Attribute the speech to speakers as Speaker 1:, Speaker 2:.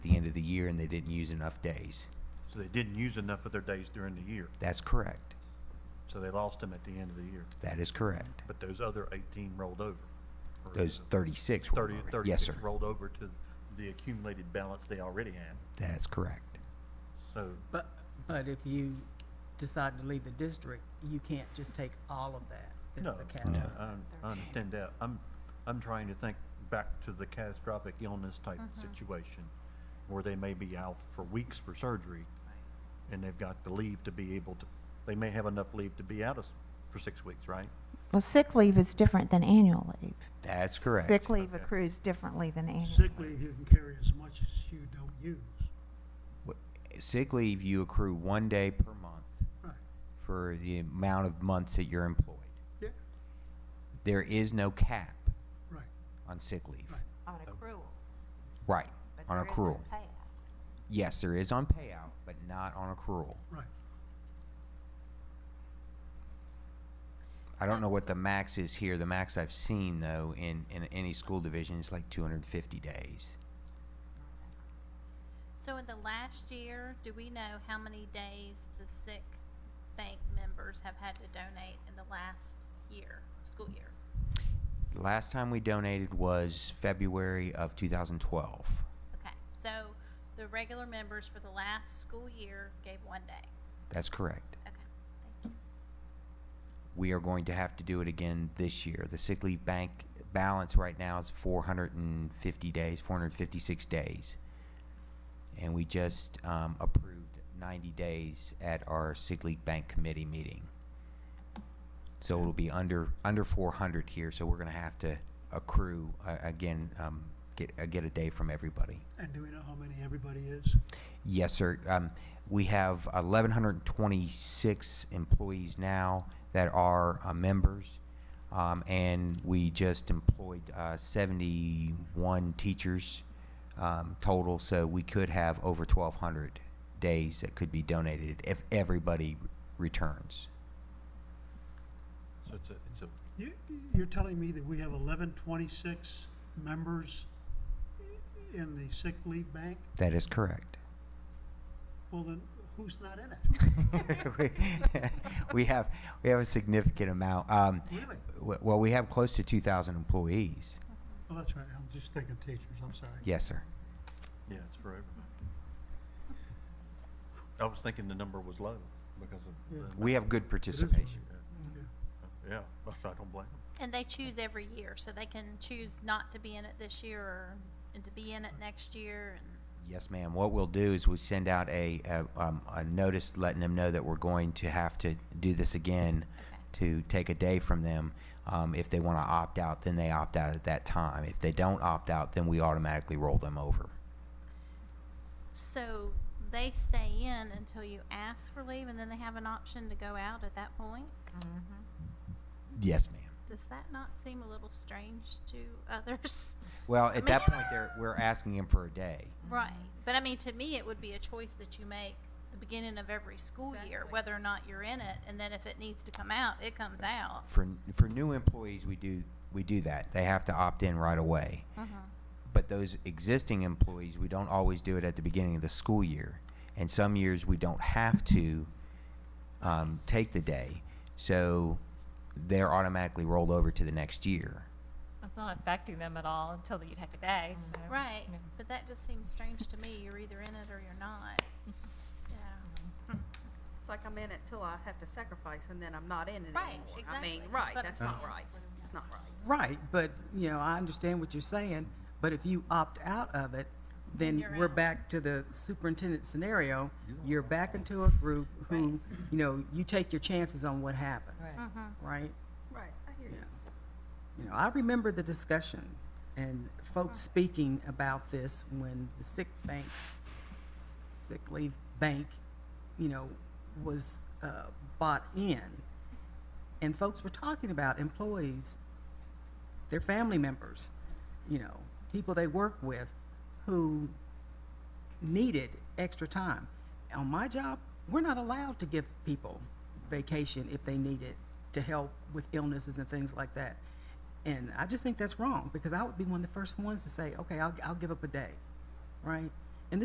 Speaker 1: year and they didn't use enough days.
Speaker 2: So they didn't use enough of their days during the year,
Speaker 1: That's correct.
Speaker 2: so they lost them at the end of the year.
Speaker 1: That is correct.
Speaker 2: But those other 18 rolled over. or
Speaker 1: Those 36 were
Speaker 2: 30
Speaker 1: already- yes,
Speaker 2: 36
Speaker 1: sir.
Speaker 2: rolled over to the accumulated balance they already had.
Speaker 1: That's correct.
Speaker 2: So,
Speaker 3: But, but if you decide to leave the district, you can't just take all of that.
Speaker 2: no,
Speaker 3: There's a
Speaker 2: I-
Speaker 3: catch.
Speaker 1: No.
Speaker 2: I I understand that. I'm, I'm trying to think back to the catastrophic illness type situation where they may be out for weeks for surgery and they've got the leave to be able to, they may have enough leave to be out of s- for six weeks, right?
Speaker 4: Well, sick leave is different than annual leave.
Speaker 1: That's correct.
Speaker 4: Sick leave
Speaker 2: Okay.
Speaker 4: accrues differently than annual.
Speaker 5: Sick leave, you can carry as much as you don't use.
Speaker 1: Wh- Sick leave, you accrue one day per month
Speaker 5: Right,
Speaker 1: for the amount of months that you're employed.
Speaker 5: yeah,
Speaker 1: There is no cap
Speaker 5: right,
Speaker 1: on sick leave.
Speaker 5: right.
Speaker 4: On accrual.
Speaker 1: Right,
Speaker 4: but
Speaker 1: on
Speaker 4: there is
Speaker 1: accrual.
Speaker 4: payout.
Speaker 1: Yes, there is on payout, but not on accrual.
Speaker 5: Right.
Speaker 1: I don't know what the max is here. The max I've seen though in, in any school division is like two hundred and fifty days.
Speaker 6: So in the last year, do we know how many days the sick bank members have had to donate in the last year, school year?
Speaker 1: The last time we donated was February of two thousand twelve.
Speaker 6: Okay, so the regular members for the last school year gave one day.
Speaker 1: That's correct.
Speaker 6: Okay, thank you.
Speaker 1: We are going to have to do it again this year. The sick leave bank balance right now is four hundred and fifty days, four hundred and fifty-six days. And we just, um, approved ninety days at our sick leave bank committee meeting. So it'll be under, under four hundred here, so we're gonna have to accrue, uh, again, um, get, uh, get a day from everybody.
Speaker 5: And do we know how many everybody is?
Speaker 1: Yes, sir. Um, we have eleven hundred and twenty-six employees now that are uh, members. Um, and we just employed uh, seventy-one teachers um, total, so we could have over twelve hundred days that could be donated if everybody returns.
Speaker 2: So it's a, it's a
Speaker 5: You, you're telling me that we have eleven twenty-six members in the sick leave bank?
Speaker 1: That is correct.
Speaker 5: Well, then, who's not in it?
Speaker 1: we, we have we have a significant amount. Um,
Speaker 5: Really?
Speaker 1: w- well, we have close to two thousand employees.
Speaker 5: Oh, that's right, I'm just thinking teachers, I'm sorry.
Speaker 1: Yes, sir.
Speaker 2: Yeah, it's for everybody. I was thinking the number was low because of. the
Speaker 1: We have good participation.
Speaker 5: Yeah.
Speaker 2: amount. Yeah, but I don't blame them.
Speaker 6: And they choose every year, so they can choose not to be in it this year or, and to be in it next year and.
Speaker 1: Yes, ma'am. What we'll do is we send out a, a, um, a notice letting them know that we're going to have to do this again to take a day from them. Um, if they want to opt out, then they opt out at that time. If they don't opt out, then we automatically roll them over.
Speaker 6: So they stay in until you ask for leave and then they have an option to go out at that point?
Speaker 1: Yes, ma'am.
Speaker 6: Does that not seem a little strange to others?
Speaker 1: Well, at that point, they're, we're asking them for a day.
Speaker 6: Right. But I mean, to me, it would be a choice that you make the beginning of every school year, whether or not you're in it. And then if it needs to come out, it comes out.
Speaker 1: For, for new employees, we do, we do that. They have to opt in right away. But those existing employees, we don't always do it at the beginning of the school year. And some years, we don't have to um, take the day. So they're automatically rolled over to the next year.
Speaker 7: It's not affecting them at all until you take a day. you know?
Speaker 6: Right.
Speaker 7: Yeah.
Speaker 6: But that just seems strange to me. You're either in it or you're not. Yeah.
Speaker 8: It's like I'm in it till I have to sacrifice and then I'm not in it anymore.
Speaker 6: Right,
Speaker 8: I mean,
Speaker 6: exactly.
Speaker 8: right,
Speaker 6: That's
Speaker 8: that's
Speaker 6: what I'm
Speaker 8: not
Speaker 6: saying.
Speaker 8: right. It's not right.
Speaker 3: Right, but, you know, I understand what you're saying, but if you opt out of it, then
Speaker 6: You're
Speaker 3: we're
Speaker 6: out.
Speaker 3: back to the superintendent scenario. You're back into a group who, you know, you take your chances on what happens, right?
Speaker 8: Right, I hear you.
Speaker 3: You know, I remember the discussion and folks speaking about this when the sick bank, s- sick leave bank, you know, was uh, bought in. And folks were talking about employees, their family members, you know, people they work with who needed extra time. On my job, we're not allowed to give people vacation if they need it to help with illnesses and things like that. And I just think that's wrong because I would be one of the first ones to say, okay, I'll, I'll give up a day, right?